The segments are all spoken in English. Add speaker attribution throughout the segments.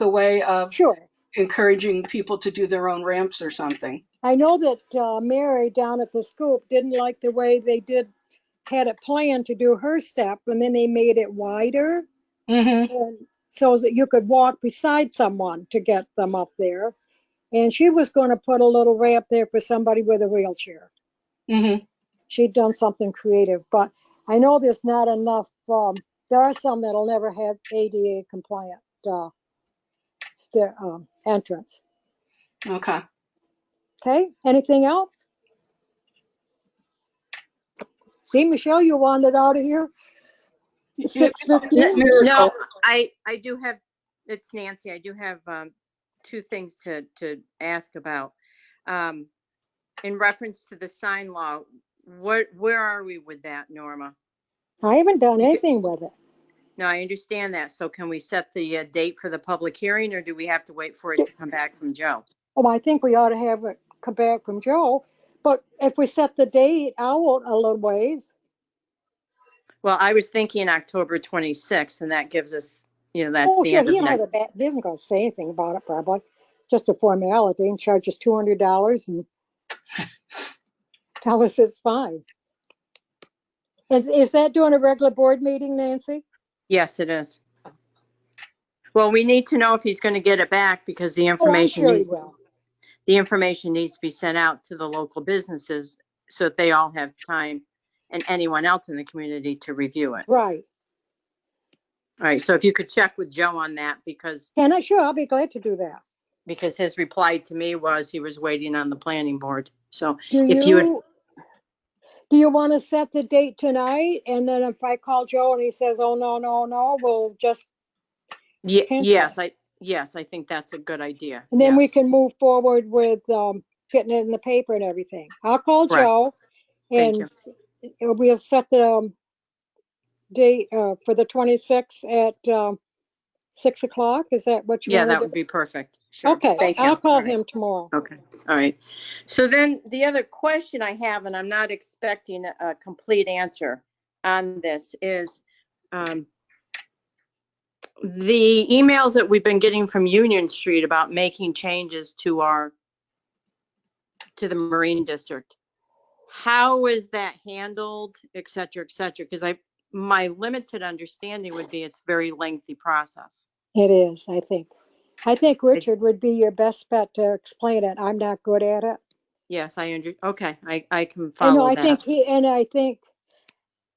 Speaker 1: the way of
Speaker 2: Sure.
Speaker 1: encouraging people to do their own ramps or something.
Speaker 2: I know that uh, Mary down at the scoop didn't like the way they did, had it planned to do her step, and then they made it wider.
Speaker 1: hmm
Speaker 2: and so that you could walk beside someone to get them up there. And she was going to put a little ramp there for somebody with a wheelchair.
Speaker 1: hmm
Speaker 2: She'd done something creative, but I know there's not enough. Um, there are some that'll never have ADA compliant uh, stair, um, entrance.
Speaker 1: Okay.
Speaker 2: Okay, anything else? See, Michelle, you wanted out of here. Six
Speaker 1: Net
Speaker 2: fifteen.
Speaker 1: miracle.
Speaker 3: No, I, I do have, it's Nancy, I do have um, two things to, to ask about. Um, In reference to the sign law, what, where are we with that, Norma?
Speaker 2: I haven't done anything with it.
Speaker 3: Now, I understand that, so can we set the uh, date for the public hearing, or do we have to wait for it to come back from Joe?
Speaker 2: Oh, I think we ought to have it come back from Joe, but if we set the date out a little ways,
Speaker 3: Well, I was thinking October 26th, and that gives us, you know, that's
Speaker 2: oh,
Speaker 3: the
Speaker 2: sure,
Speaker 3: end
Speaker 2: he
Speaker 3: of
Speaker 2: had
Speaker 3: next.
Speaker 2: a bat, he isn't gonna say anything about it probably, just a formality and charge us two hundred dollars and tell us it's fine. Is, is that doing a regular board meeting, Nancy?
Speaker 3: Yes, it is. Well, we need to know if he's going to get it back, because the
Speaker 2: Oh, I'm
Speaker 3: information
Speaker 2: sure he
Speaker 3: needs
Speaker 2: will.
Speaker 3: the information needs to be sent out to the local businesses so that they all have time and anyone else in the community to review it. All
Speaker 2: Right.
Speaker 3: right, so if you could check with Joe on that because,
Speaker 2: And I, sure, I'll be glad to do that.
Speaker 3: because his reply to me was he was waiting on the planning board. So,
Speaker 2: Do
Speaker 3: If you would-
Speaker 2: you, do you want to set the date tonight? And then if I call Joe and he says, oh, no, no, no, we'll just
Speaker 3: ye-
Speaker 2: Okay.
Speaker 3: yes, I, yes, I think that's a good idea.
Speaker 2: And then we
Speaker 3: Yes.
Speaker 2: can move forward with um, getting it in the paper and everything. I'll call
Speaker 3: Correct.
Speaker 2: Joe
Speaker 3: Thank
Speaker 2: and
Speaker 3: you.
Speaker 2: s- and we'll set the um, date uh, for the 26th at um, 6 o'clock. Is that what you
Speaker 3: Yeah,
Speaker 2: want
Speaker 3: that
Speaker 2: to
Speaker 3: would
Speaker 2: do?
Speaker 3: be perfect. Sure.
Speaker 2: Okay,
Speaker 3: Thank you.
Speaker 2: I'll
Speaker 3: All
Speaker 2: call
Speaker 3: right.
Speaker 2: him tomorrow.
Speaker 3: Okay, all right. So then the other question I have, and I'm not expecting a- a complete answer on this, is um, the emails that we've been getting from Union Street about making changes to our, to the Marine District. How is that handled, et cetera, et cetera? Because I, my limited understanding would be it's a very lengthy process.
Speaker 2: It is, I think. I think Richard would be your best bet to explain it. I'm not good at it.
Speaker 3: Yes, I, under- okay, I, I can
Speaker 2: I know,
Speaker 3: follow
Speaker 2: I think
Speaker 3: that.
Speaker 2: he, and I think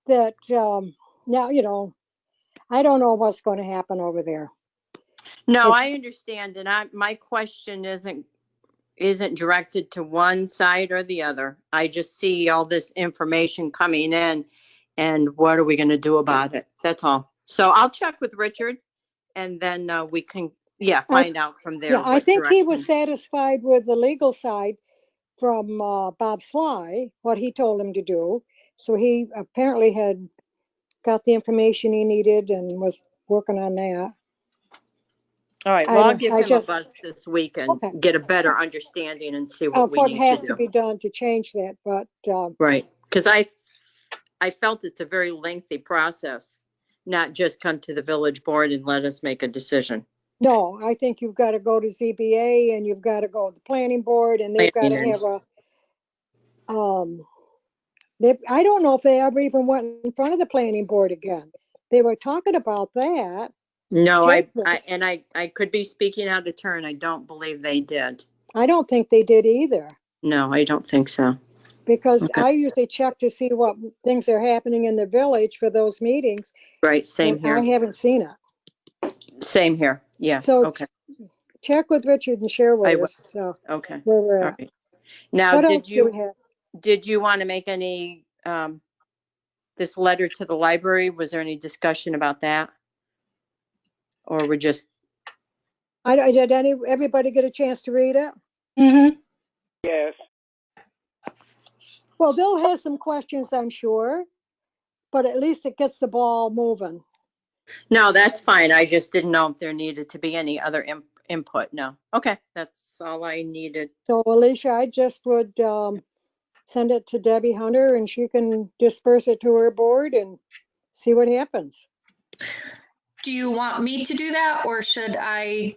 Speaker 2: that um, now, you know, I don't know what's going to happen over there.
Speaker 3: No, I
Speaker 2: It's-
Speaker 3: understand, and I, my question isn't, isn't directed to one side or the other. I just see all this information coming in, and what are we gonna do about it? That's all. So I'll check with Richard, and then uh, we can, yeah,
Speaker 2: I-
Speaker 3: find out from there.
Speaker 2: Yeah, I
Speaker 3: what
Speaker 2: think he was
Speaker 3: direction.
Speaker 2: satisfied with the legal side from uh, Bob Sly, what he told him to do. So he apparently had got the information he needed and was working on that.
Speaker 3: All right,
Speaker 2: I
Speaker 3: well, I'll
Speaker 2: don't-
Speaker 3: give
Speaker 2: I
Speaker 3: him a
Speaker 2: just-
Speaker 3: buzz this week and
Speaker 2: Okay.
Speaker 3: get a better understanding and see
Speaker 2: Uh,
Speaker 3: what we
Speaker 2: What
Speaker 3: need
Speaker 2: has
Speaker 3: to
Speaker 2: to
Speaker 3: do.
Speaker 2: be done to change that, but uh,
Speaker 3: Right, because I, I felt it's a very lengthy process, not just come to the village board and let us make a decision.
Speaker 2: no, I think you've got to go to ZBA and you've got to go to the planning board and they've got to
Speaker 3: Planning.
Speaker 2: have a, um, they, I don't know if they ever even went in front of the planning board again. They were talking about that.
Speaker 3: No, I, I,
Speaker 2: Judgments.
Speaker 3: and I, I could be speaking out of turn. I don't believe they did.
Speaker 2: I don't think they did either.
Speaker 3: No, I don't think so.
Speaker 2: because
Speaker 3: Okay.
Speaker 2: I usually check to see what things are happening in the village for those meetings.
Speaker 3: Right, same
Speaker 2: and I
Speaker 3: here,
Speaker 2: haven't seen it.
Speaker 3: same here. Yes,
Speaker 2: So-
Speaker 3: okay,
Speaker 2: Check with Richard and share
Speaker 3: I
Speaker 2: with
Speaker 3: will.
Speaker 2: us so
Speaker 3: okay,
Speaker 2: where we're
Speaker 3: all
Speaker 2: at.
Speaker 3: right. Now,
Speaker 2: What else
Speaker 3: did
Speaker 2: do
Speaker 3: you,
Speaker 2: we have?
Speaker 3: did you want to make any, um, this letter to the library? Was there any discussion about that? Or we're just,
Speaker 2: I, don't- did any, everybody get a chance to read it?
Speaker 1: hmm
Speaker 4: Yes,
Speaker 2: Well, Bill has some questions, I'm sure, but at least it gets the ball moving.
Speaker 3: no, that's fine. I just didn't know if there needed to be any other im- input. No, okay, that's all I needed.
Speaker 2: So Alicia, I just would, um, send it to Debbie Hunter and she can disperse it to her board and see what happens.
Speaker 5: Do you want me to do that or should I